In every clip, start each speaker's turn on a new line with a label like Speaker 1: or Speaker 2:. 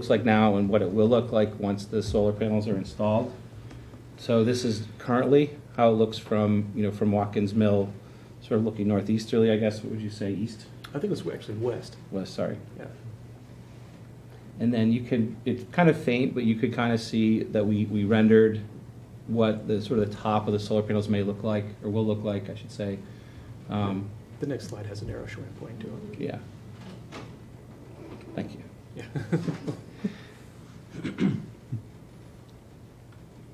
Speaker 1: looks like now and what it will look like once the solar panels are installed. So this is currently how it looks from, you know, from Watkins Mill, sort of looking northeasterly, I guess, what would you say, east,
Speaker 2: I think it's actually west.
Speaker 1: west, sorry.
Speaker 2: Yeah.
Speaker 1: And then you can, it's kind of faint, but you could kind of see that we, we rendered what the, sort of the top of the solar panels may look like, or will look like, I should say. Um,
Speaker 2: The next slide has an arrow showing point to it.
Speaker 1: Yeah. Thank you.
Speaker 2: Yeah.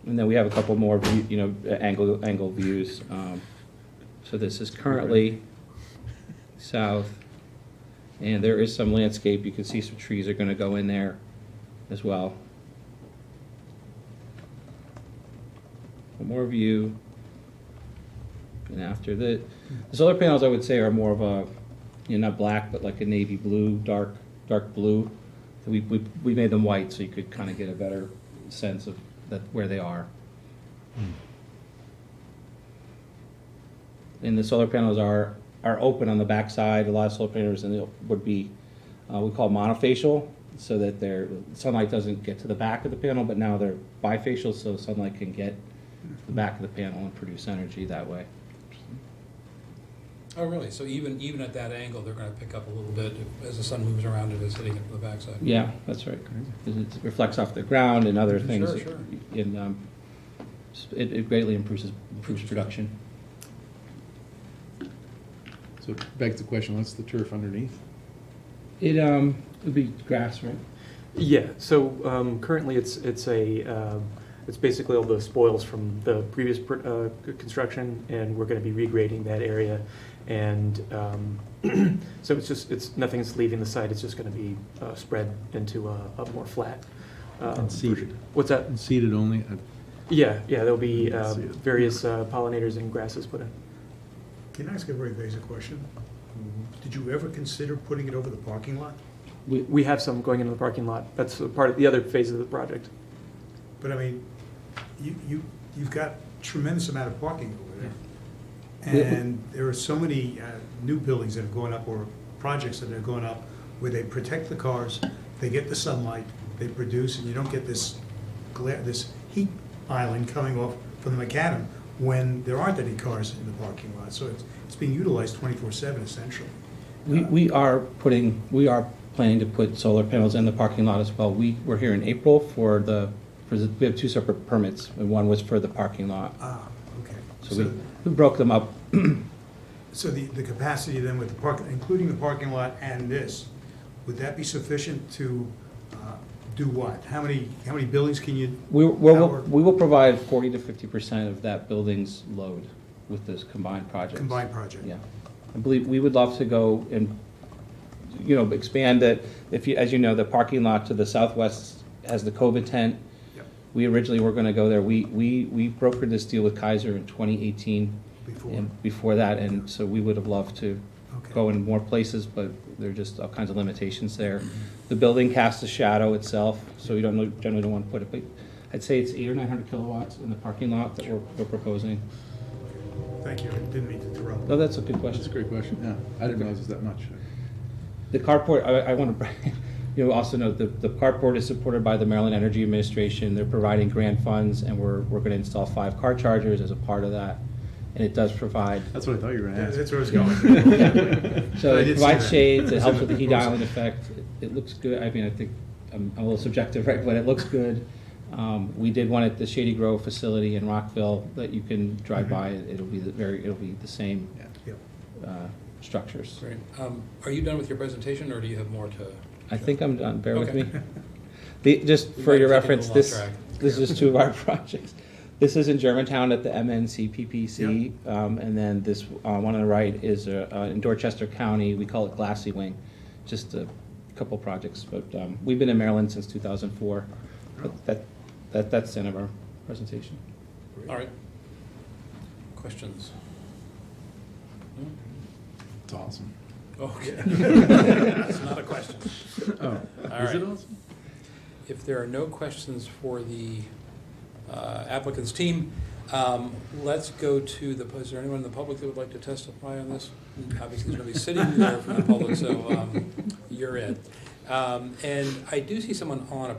Speaker 1: And then we have a couple more, view- you know, angle, angle views. Um, So this is currently south, and there is some landscape. You can see some trees are going to go in there as well. One more view. And after the, the solar panels, I would say, are more of a, you know, not black, but like a navy blue, dark, dark blue. We, we, we made them white so you could kind of get a better sense of that, where they are. And the solar panels are, are open on the backside. A lot of solar panels and it would be, uh, we call monofacial, so that their sunlight doesn't get to the back of the panel, but now they're bifacial, so sunlight can get the back of the panel and produce energy that way.
Speaker 3: Oh, really? So even, even at that angle, they're gonna pick up a little bit if- as the sun moves around and it's hitting it from the backside?
Speaker 1: Yeah, that's right. 'Cause It reflects off the ground and other
Speaker 3: Sure,
Speaker 1: things.
Speaker 3: sure.
Speaker 1: And um, s- it it greatly improves, improves production.
Speaker 4: So begs the question, what's the turf underneath?
Speaker 1: It, um, would be grass, right?
Speaker 2: Yeah, so um, currently it's, it's a, um, it's basically all the spoils from the previous pr- uh, c- construction, and we're gonna be regrading that area. And um, so it's just, it's, nothing's leaving the site, it's just gonna be uh, spread into a a more flat. um,
Speaker 4: And seeded.
Speaker 2: What's that?
Speaker 4: And seeded only, uh,
Speaker 2: Yeah, yeah, there'll be
Speaker 4: Let's
Speaker 2: uh,
Speaker 4: see it.
Speaker 2: various uh, pollinators and grasses put in.
Speaker 5: Can I ask a very basic question? Did you ever consider putting it over the parking lot?
Speaker 1: We-
Speaker 2: We have some going into the parking lot, that's a part of the other phase of the project.
Speaker 5: But I mean, you, you, you've got tremendous amount of parking over there. And there are so many uh, new buildings that have gone up or projects that are going up where they protect the cars, they get the sunlight, they produce, and you don't get this glare, this heat island coming off from the macadam when there aren't any cars in the parking lot. So it's, it's being utilized twenty-four seven essentially.
Speaker 1: We, we are putting, we are planning to put solar panels in the parking lot as well. We were here in April for the, for the, we have two separate permits, and one was for the parking lot.
Speaker 5: Ah, okay.
Speaker 1: So we, we broke them up.
Speaker 5: So the, the capacity then with the park, including the parking lot and this, would that be sufficient to uh, do what? How many, how many buildings can you?
Speaker 1: We, we'll,
Speaker 5: power
Speaker 1: we will provide forty to fifty percent of that building's load with this combined project.
Speaker 5: Combined project?
Speaker 1: Yeah. I believe, we would love to go and, you know, expand it. If you, as you know, the parking lot to the southwest has the COVID tent.
Speaker 5: Yep,
Speaker 1: We originally were gonna go there. We, we, we brokered this deal with Kaiser in twenty eighteen.
Speaker 5: Before,
Speaker 1: And before that, and so we would have loved to
Speaker 5: okay.
Speaker 1: go in more places, but there are just all kinds of limitations there. The building casts a shadow itself, so you don't know, generally don't wanna put it, but I'd say it's eight or nine hundred kilowatts in the parking lot that we're, we're proposing.
Speaker 5: Thank you, I didn't mean to interrupt.
Speaker 1: No, that's a good
Speaker 4: that's a
Speaker 1: question.
Speaker 4: great question, yeah, I didn't realize it was that much.
Speaker 1: The carport, I, I want to, you know, also note that the carport is supported by the Maryland Energy Administration. They're providing grant funds and we're, we're going to install five car chargers as a part of that. And it does provide,
Speaker 4: That's what I thought you were gonna
Speaker 5: That-
Speaker 4: ask.
Speaker 5: That's where I was going.
Speaker 1: so
Speaker 5: I
Speaker 1: it
Speaker 5: did see
Speaker 1: provides
Speaker 5: that.
Speaker 1: shades, it
Speaker 5: It's
Speaker 1: helps
Speaker 5: in
Speaker 1: with
Speaker 5: the
Speaker 1: the heat
Speaker 5: proposal.
Speaker 1: island effect. It- It looks good. I mean, I think I'm I'm a little subjective, right, but it looks good. Um, we did one at the Shady Grove facility in Rockville that you can
Speaker 5: Mm-hmm.
Speaker 1: drive by. It'll be the very, it'll be the same,
Speaker 4: Yeah.
Speaker 5: Yep.
Speaker 1: uh, structures.
Speaker 3: Great. Um, Are you done with your presentation, or do you have more to?
Speaker 1: I think I'm done, bear with
Speaker 3: Okay.
Speaker 1: me. The, just
Speaker 3: We
Speaker 1: for
Speaker 3: might
Speaker 1: your
Speaker 3: have taken a
Speaker 1: reference, this,
Speaker 3: little off
Speaker 1: this is two of our projects. This is in Germantown at the MNCPPC, um, and then this, uh, one on the right is, uh, uh, in Dorchester County, we call it Glassy Wing. Just a couple projects, but, um, we've been in Maryland since two thousand four, but that, that, that's the end of our presentation.
Speaker 3: All right. Questions? No?
Speaker 4: It's awesome.
Speaker 3: Okay. It's not a question.
Speaker 4: Oh,
Speaker 3: All
Speaker 4: is
Speaker 3: right.
Speaker 4: it awesome?
Speaker 3: If there are no questions for the uh, applicant's team, um, let's go to the, is there anyone in the public that would like to testify on this? Obviously, there's nobody sitting there from the public, so um, you're it. Um, And I do see someone on a